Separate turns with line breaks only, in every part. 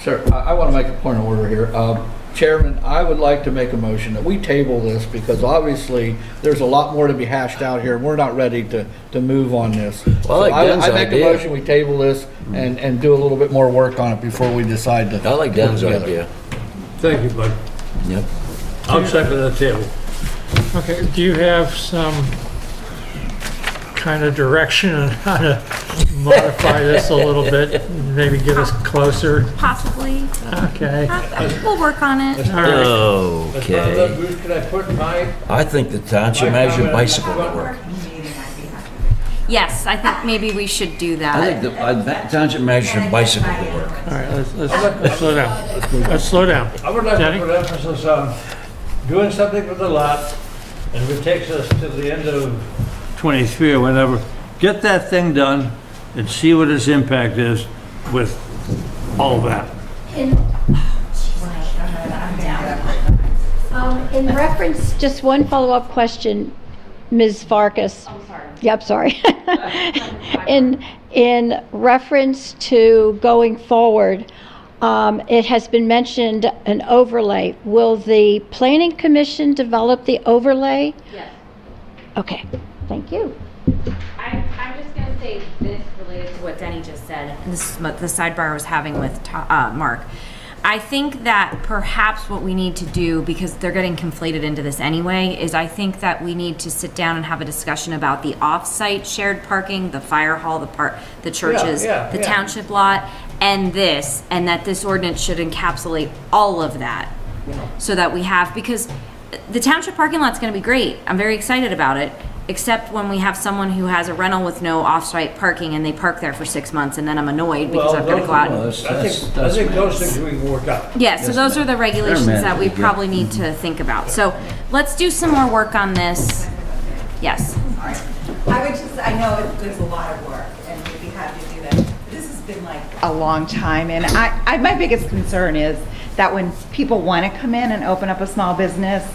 Sir, I want to make a point of order here. Um, Chairman, I would like to make a motion that we table this because obviously there's a lot more to be hashed out here. We're not ready to, to move on this.
Well, I like
So
Dan's
I make a
idea.
motion, we table this and, and do a little bit more work on it before we decide to.
I like
put it
Dan's
together.
idea.
Thank you, bud.
Yep.
I'm second the table.
Okay, do you have some kind of direction on how to modify this a little bit? Maybe get us closer?
Possibly.
Okay.
Uh, We'll work on it.
All right.
Okay.
Uh, Bruce, can I put my?
I think the township manager bicycle network.
Yes, I think maybe we should do
I
that.
think the uh, that township manager bicycle network.
All right, let's, let's let's slow down. Let's slow down.
I would like
Danny?
to put emphasis on doing something with the lot, and it takes us to the end of 23 or whenever. Get that thing done and see what its impact is with all that.
Um, In reference, just one follow-up question, Ms. Farkas. I'm sorry. Yep, sorry. In, in reference to going forward, um, it has been mentioned an overlay. Will the planning commission develop the overlay?
Yes.
Okay, thank you.
I'm, I'm just gonna say this related to what Denny just said, and this is what the sidebar I was having with To- uh, Mark. I think that perhaps what we need to do, because they're getting conflated into this anyway, is I think that we need to sit down and have a discussion about the off-site shared parking, the fire hall, the park, the churches,
yeah,
the
yeah.
township lot, and this, and that this ordinance should encapsulate all of that. so that we have, because the township parking lot's gonna be great, I'm very excited about it, except when we have someone who has a rental with no off-site parking and they park there for six months and then I'm annoyed because I've gotta go out. and-
Well, that's-
I
that's-
think, I
that's
think
my-
those things we can work out.
Yeah, so those are the regulations that we
manageable, yeah.
probably need to think about, so let's do some more work on this. Yes,
I would just, I know it- there's a lot of work, and we'd be happy to do that. But This has been like a long time, and I, I, my biggest concern is that when people want to come in and open up a small business,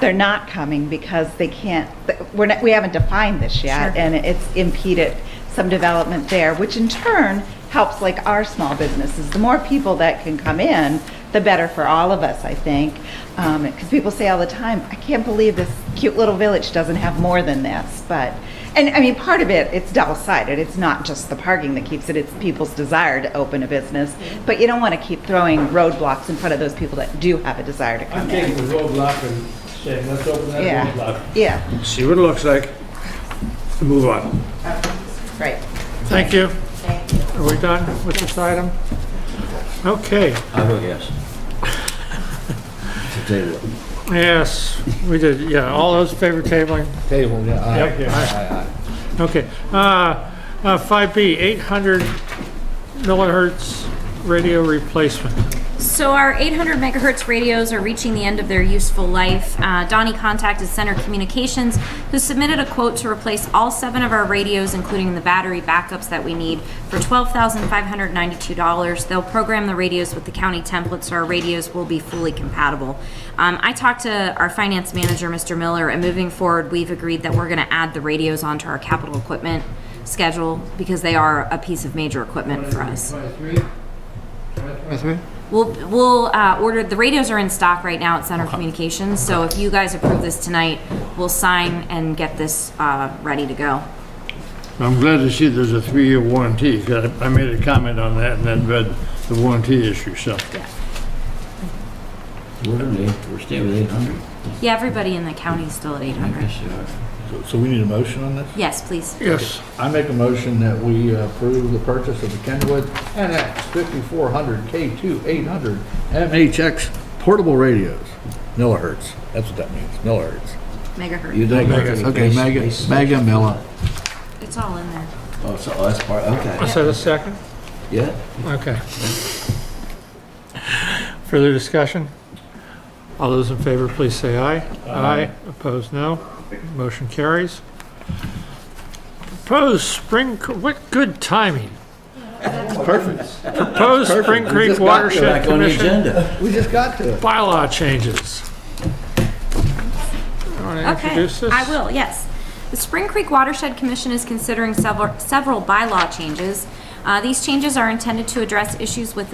they're not coming because they can't, we're not, we haven't defined this yet, and it's impeded some development there, which in turn helps like our small businesses. The more people that can come in, the better for all of us, I think. Because people say all the time, I can't believe this cute little village doesn't have more than this, but, and I mean, part of it, it's double-sided. It's not just the parking that keeps it, it's people's desire to open a business. But you don't want to keep throwing roadblocks in front of those people that do have a desire to
I'm
come in.
taking the roadblock and saying, let's open that roadblock.
Yeah, yeah.
See what it looks like, move on.
Right.
Thank you. Are we done with this item? Okay,
I vote yes. To table it.
yes, we did, yeah, all those favor tabling?
Table, yeah. aye,
Yep.
aye, aye, aye.
Okay, uh, uh, 5B, 800 millihertz radio replacement.
so our 800 megahertz radios are reaching the end of their useful life. Uh, Donnie contacted Center Communications, who submitted a quote to replace all seven of our radios, including the battery backups that we need, for $12,592. They'll program the radios with the county template, so our radios will be fully compatible. Um, I talked to our finance manager, Mr. Miller, and moving forward, we've agreed that we're going to add the radios onto our capital equipment schedule because they are a piece of major equipment for us. We'll, we'll uh, order, the radios are in stock right now at Center Communications, so if you guys approve this tonight, we'll sign and get this uh, ready to go.
I'm glad to see there's a three-year warranty, 'cause I I made a comment on that and then read the warranty issue, so.
We're at eight- we're staying with eight hundred.
Yeah, everybody in the county is still at 800.
So- So we need a motion on this?
Yes, please.
Yes,
I make a motion that we approve the purchase of the Kenwood NX 5400 K2 800 MHX portable radios. Millihertz, that's what that means, millihertz.
You
Megahertz.
don't.
Mega,
have to
okay,
base-
mega,
base-
mega milla.
It's all in there.
Oh, so oh, that's part, okay.
is that a second?
Yeah?
Okay. Further discussion? All those in favor, please say aye. Aye. Opposed, no. Motion carries. Proposed Spring, Cr- what good timing. Perfect. Proposed Spring Creek Watershed
Back on the
Commission
agenda.
We just got to it.
bylaw changes. Want to
Okay,
introduce this?
I will, yes. The Spring Creek Watershed Commission is considering several, several bylaw changes. Uh, These changes are intended to address issues with the